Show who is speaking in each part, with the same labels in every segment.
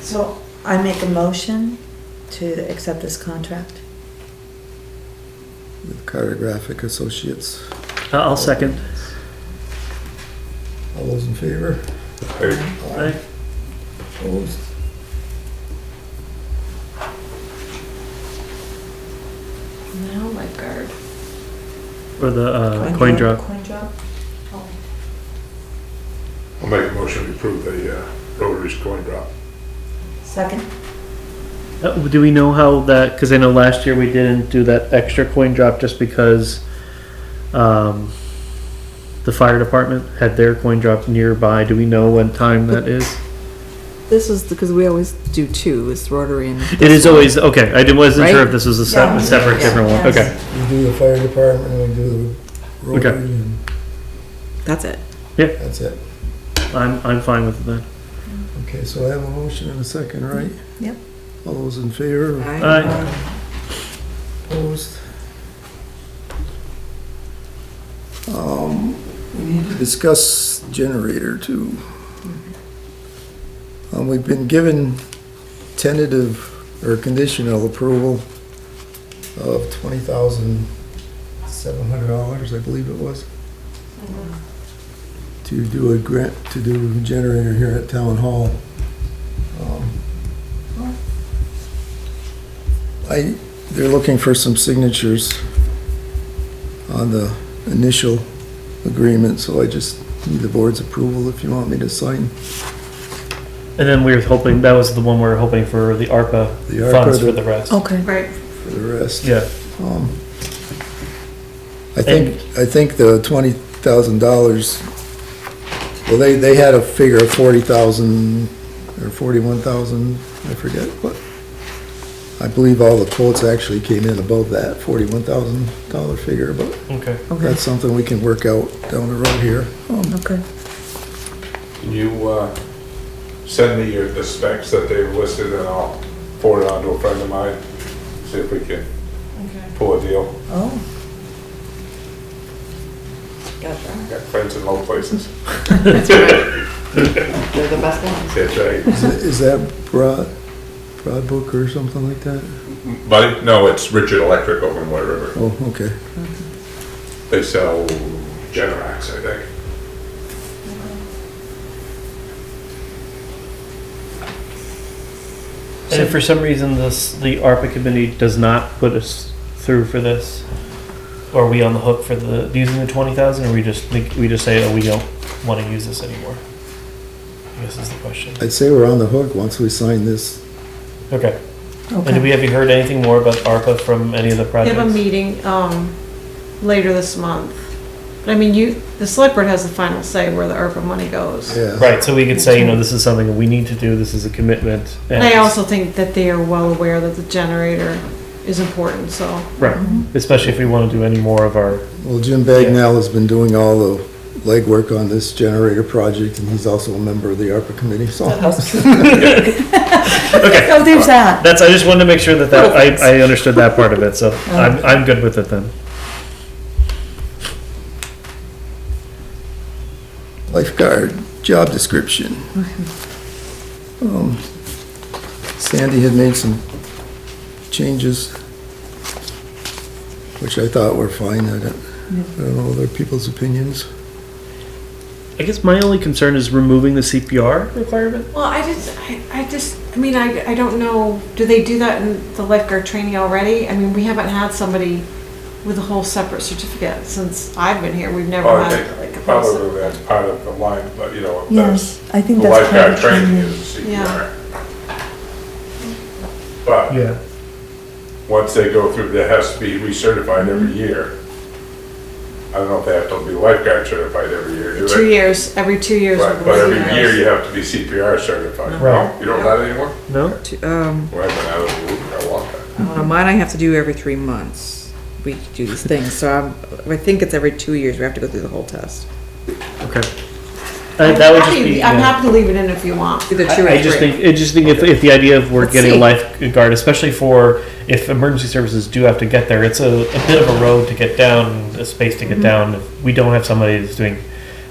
Speaker 1: So I make a motion to accept this contract.
Speaker 2: with Cartographic Associates.
Speaker 3: Uh, I'll second.
Speaker 2: All those in favor?
Speaker 4: Aye.
Speaker 3: Aye.
Speaker 2: Opposed?
Speaker 5: No lifeguard.
Speaker 3: Or the uh, coin drop.
Speaker 1: Coin drop. Oh.
Speaker 4: I'll make a motion to approve the uh, Rotary's coin drop.
Speaker 1: Second.
Speaker 3: Uh, do we know how that? Because I know last year we didn't do that extra coin drop just because um, the fire department had their coin drop nearby. Do we know what time that is?
Speaker 5: This is because we always do two. It's Rotary and
Speaker 3: It is always okay. I did- wasn't sure
Speaker 5: Right?
Speaker 3: if this was a, se-
Speaker 1: Yeah.
Speaker 3: a
Speaker 1: Yeah.
Speaker 3: separate, different one.
Speaker 1: Yes.
Speaker 3: Okay.
Speaker 2: We do the fire department, we do the
Speaker 3: Okay.
Speaker 2: rotary, and
Speaker 5: that's it.
Speaker 2: that's it.
Speaker 3: I'm I'm fine with that.
Speaker 2: Okay, so I have a motion and a second, right?
Speaker 1: Yep.
Speaker 2: All those in favor?
Speaker 3: Mm-hmm. Aye.
Speaker 2: Opposed? Um, we need to discuss generator too. Um, we've been given tentative or conditional approval of twenty thousand seven hundred dollars, I believe it was. To do a grant, to do a generator here at Town Hall. Um, I, they're looking for some signatures on the initial agreement, so I just need the board's approval if you want me to sign
Speaker 3: And then we were hoping that was the one we were hoping for the ARPA
Speaker 2: The ARPA
Speaker 3: funds for
Speaker 2: that-
Speaker 3: the rest.
Speaker 1: Okay.
Speaker 5: Right.
Speaker 2: for the rest.
Speaker 3: Yeah.
Speaker 2: Um, I think, I think the twenty thousand dollars, well, they, they had a figure of forty thousand or forty-one thousand, I forget what. I believe all the quotes actually came in above that forty-one thousand dollar figure, but
Speaker 3: Okay.
Speaker 1: Okay.
Speaker 2: That's something we can work out down the road here. Um,
Speaker 1: Okay.
Speaker 4: Can you uh, send me your- the specs that they've listed and I'll forward it on to a friend of mine? See if we can pull a deal.
Speaker 1: Oh.
Speaker 4: I Got friends in low places.
Speaker 5: That's right. They're the best ones.
Speaker 4: That's right.
Speaker 2: Is that- is that Broad, Broad Book or something like that?
Speaker 4: But, no, it's Richard Electric over in White River.
Speaker 2: Oh, okay.
Speaker 4: They sell Generacs, I think.
Speaker 3: And if for some reason this, the ARPA committee does not put us through for this, are we on the hook for the, using the twenty thousand, or we just think, we just say, oh, we don't wanna use this anymore? I guess is the question.
Speaker 2: I'd say we're on the hook once we sign this.
Speaker 3: Okay, and do we,
Speaker 1: Okay.
Speaker 3: have you heard anything more about ARPA from any of the
Speaker 6: They have a
Speaker 3: projects?
Speaker 6: meeting, um, later this month. But I mean, you, the select board has the final say where the ARPA money goes.
Speaker 2: Yeah.
Speaker 3: Right, so we could say, you know, this is something we need to do, this is a commitment.
Speaker 6: And
Speaker 3: and-
Speaker 6: I also think that they are well aware that the generator is important, so.
Speaker 3: Right,
Speaker 6: Mm-hmm.
Speaker 3: especially if we wanna do any more of our,
Speaker 2: Well, Jim Bagnell has been doing all the legwork on this generator project, and he's also a member of the ARPA committee, so.
Speaker 3: okay,
Speaker 1: Oh, there's that.
Speaker 3: that's, I just wanted to make sure that that, I, I understood that part of it, so I'm, I'm good with it then.
Speaker 2: Lifeguard, job description. Um, Sandy had made some changes, which I thought were fine. I don't, I don't know other people's opinions.
Speaker 3: I guess my only concern is removing the CPR requirement.
Speaker 6: Well, I just, I, I just, I mean, I, I don't know, do they do that in the lifeguard training already? I mean, we haven't had somebody with a whole separate certificate since I've been here. We've never
Speaker 4: I
Speaker 6: had like a
Speaker 4: think
Speaker 6: person.
Speaker 4: Oh, Probably that's part of the line, but you know, that's,
Speaker 1: Yes, I
Speaker 4: the
Speaker 1: think that's part
Speaker 4: lifeguard
Speaker 1: of training.
Speaker 4: training is a
Speaker 6: Yeah.
Speaker 4: CPR. But
Speaker 3: Yeah.
Speaker 4: once they go through, that has to be recertified
Speaker 6: Mm-hmm.
Speaker 4: every year. I don't know if they have to be lifeguard certified every year, do
Speaker 6: Two
Speaker 4: they?
Speaker 6: years, every two years.
Speaker 4: Right,
Speaker 6: with
Speaker 4: but
Speaker 6: the
Speaker 4: every
Speaker 6: lifeguards.
Speaker 4: year you have to be CPR certified.
Speaker 3: Right.
Speaker 4: No, You don't have that anymore?
Speaker 3: No?
Speaker 5: To- Um,
Speaker 4: Well, I've been out of the loop for a long time.
Speaker 5: on mine, I have to do every three months. We do these things, so I'm, I think it's every two years we have to go through the whole test.
Speaker 3: Okay. Uh, that would just
Speaker 6: happy-
Speaker 3: be.
Speaker 6: I'm
Speaker 3: yeah.
Speaker 6: happy to leave it in if you want.
Speaker 5: Either two or
Speaker 3: I, I just
Speaker 5: three.
Speaker 3: think, I just think if, if the idea of we're
Speaker 5: Let's
Speaker 3: getting a
Speaker 5: see.
Speaker 3: lifeguard, especially for, if emergency services do have to get there, it's a, a bit of a road to get down, a space to get down. If we don't have somebody that's doing,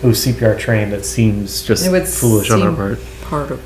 Speaker 3: who's CPR trained, that seems just
Speaker 5: It would
Speaker 3: foolish on our
Speaker 5: seem
Speaker 3: part.
Speaker 5: Part of